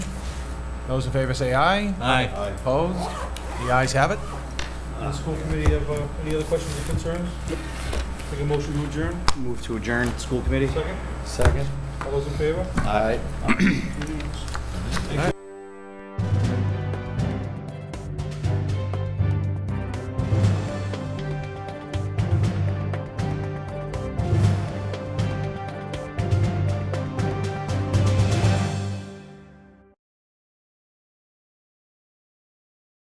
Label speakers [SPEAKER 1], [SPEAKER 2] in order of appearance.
[SPEAKER 1] Those in favor say aye.
[SPEAKER 2] Aye.
[SPEAKER 1] Opposed? The ayes have it.
[SPEAKER 3] The school committee have uh, any other questions or concerns? Take a motion to adjourn,
[SPEAKER 4] Move to adjourn school committee.
[SPEAKER 3] second?
[SPEAKER 4] Second.
[SPEAKER 3] All those in favor?
[SPEAKER 4] Aye.